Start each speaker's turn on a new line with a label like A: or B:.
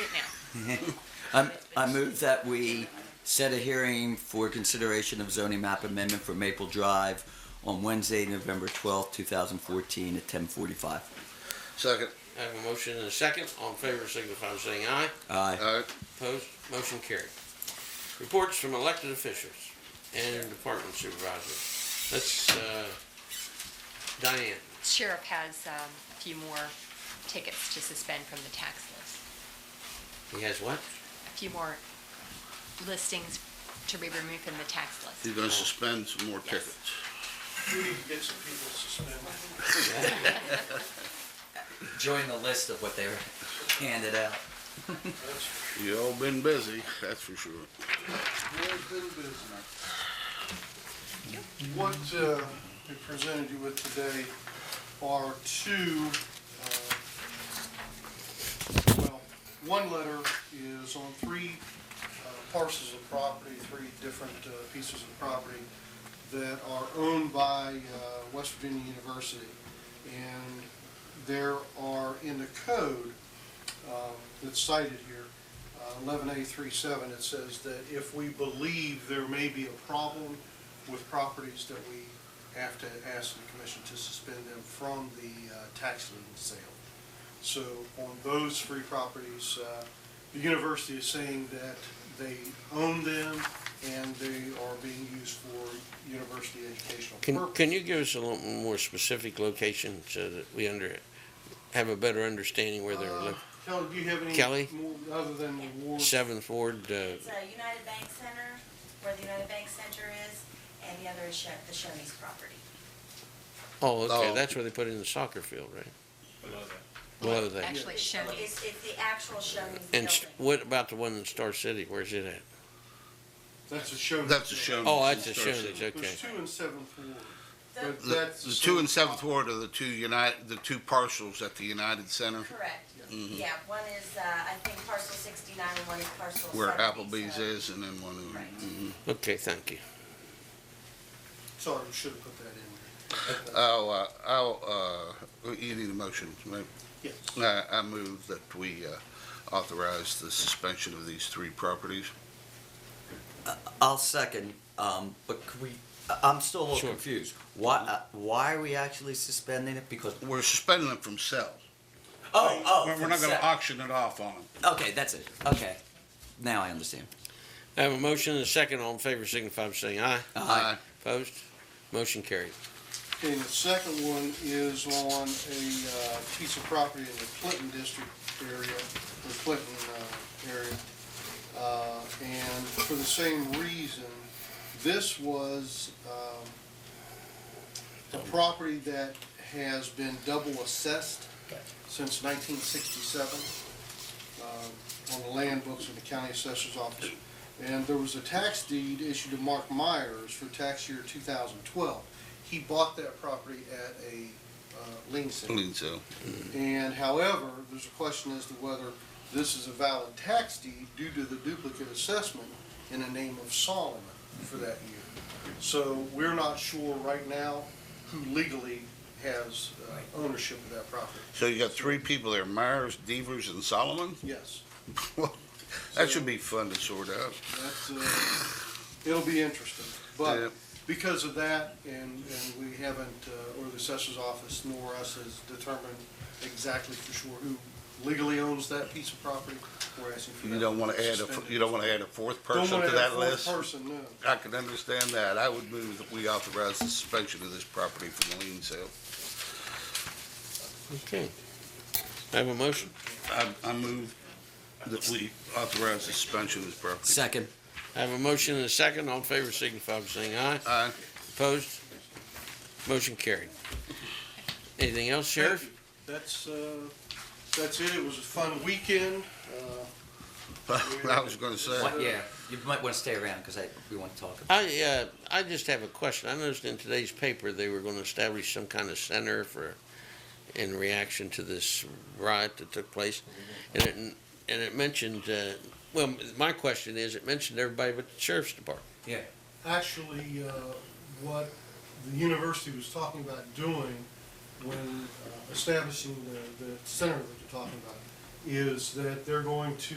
A: it now.
B: I'm- Um, I move that we set a hearing for consideration of zoning map amendment for Maple Drive on Wednesday, November 12th, 2014 at 10:45.
C: Second.
D: I have a motion and a second. All in favor signify by saying aye.
B: Aye.
C: Aye.
D: Opposed? Motion carried. Reports from elected officials and department supervisors. Let's, uh, Diane.
A: Sheriff has um, a few more tickets to suspend from the tax list.
D: He has what?
A: A few more listings to be removed from the tax list.
C: He's gonna suspend some more tickets.
E: We need to get some people suspended.
B: Join the list of what they were handed out.
E: That's
C: You all been busy, that's for sure.
E: real good business. What uh, we presented you with today are two, uh, well, one letter is on three uh, parcels of property, three different uh, pieces of property that are owned by uh, West Virginia University. And there are in the code uh, that's cited here, uh, eleven A three seven, it says that if we believe there may be a problem with properties that we have to ask the commission to suspend them from the uh, tax lien sale. So on those three properties, uh, the university is saying that they own them and they are being used for university educational
D: Can,
E: purposes.
D: can you give us a little more specific location so that we under, have a better understanding where they're
E: Uh,
D: located?
E: Kelly, do you have any?
D: Kelly?
E: more Other than the ward?
D: Seventh Ward, uh,
F: It's a United Bank Center, where the United Bank Center is, and the other is Sho- the Shoney's property.
D: oh, okay,
C: Oh.
D: that's where they put in the soccer field, right? Below that.
A: Actually, Shoney's.
F: It's, it's the actual Shoney's
D: And s-
F: building.
D: what about the one in Star City? Where's it at?
E: That's a show.
C: That's a show.
D: Oh, that's a Shoney's, okay.
E: There's two in Seventh Ward.
F: The-
E: But
C: The,
E: that's
C: the two
E: same
C: and seventh
E: property.
C: ward are the two United, the two parcels at the United Center
F: Correct,
C: Mhm.
F: yeah, one is, uh, I think parcel sixty-nine and one is parcel seventy.
C: where Applebee's
F: so-
C: is and then one of
F: Right.
C: them.
D: Okay, thank you.
E: Sorry, we should have put that in there.
C: Oh, uh, I'll, uh, you need a motion. right?
E: Yes.
C: I, I move that we, uh, authorize the suspension of these three properties.
B: I'll second, um, but could we, I- I'm still a little
D: Sure.
B: confused. Why, uh, why are we actually suspending it? Because,
C: We're suspending them from sale.
B: oh, oh.
C: We're we're not gonna
B: consent.
C: auction it off on them.
B: Okay, that's it. Okay. Now I understand.
D: I have a motion and a second. All in favor signify by saying aye.
B: Aye.
D: Opposed? Motion carried.
E: And the second one is on a uh, piece of property in the Clinton district area, the Clinton uh, area. Uh, And for the same reason, this was um, a property that has been double assessed since 1967 uh, on the land books of the county assessor's office. And there was a tax deed issued to Mark Myers for tax year 2012 he bought that property at a uh, lien sale.
C: Clean sale.
E: And however, there's a question as to whether this is a valid tax deed due to the duplicate assessment in the name of Solomon for that year. So we're not sure right now who legally has uh, ownership of that property.
C: So you got three people there, Myers, Devers, and Solomon?
E: Yes,
C: That should be fun to sort out.
E: that's, uh, it'll be interesting.
C: Yeah.
E: But because of that, and, and we haven't, uh, or the assessor's office nor us has determined exactly for sure who legally owns that piece of property, we're asking for that.
C: You don't want to add
E: suspended.
C: a, you don't want to add a fourth
E: Don't
C: person
E: wanna
C: to
E: add
C: that
E: a fourth
C: list?
E: Person, no.
C: I can understand that. I would move that we authorize the suspension of this property from the lien sale.
D: Okay. I have a motion.
C: I, I move that we authorize the suspension of this property.
B: Second.
D: I have a motion and a second. All in favor signify by saying aye.
C: Aye.
D: Opposed? Motion carried. Anything else, Sheriff?
E: That's, uh, that's it. It was a fun weekend. Uh,
C: I was going to say,
B: What- yeah, you might want to stay around because we want to talk. about
D: I, uh, I just have a question. I noticed in today's paper, they were gonna establish some kind of center for, in reaction to this riot that took place. And it, and it mentioned, uh, well, my question is, it mentioned everybody but the sheriff's department.
E: Actually, uh, what the university was talking about doing when uh, establishing the, the center that you're talking about is that they're going to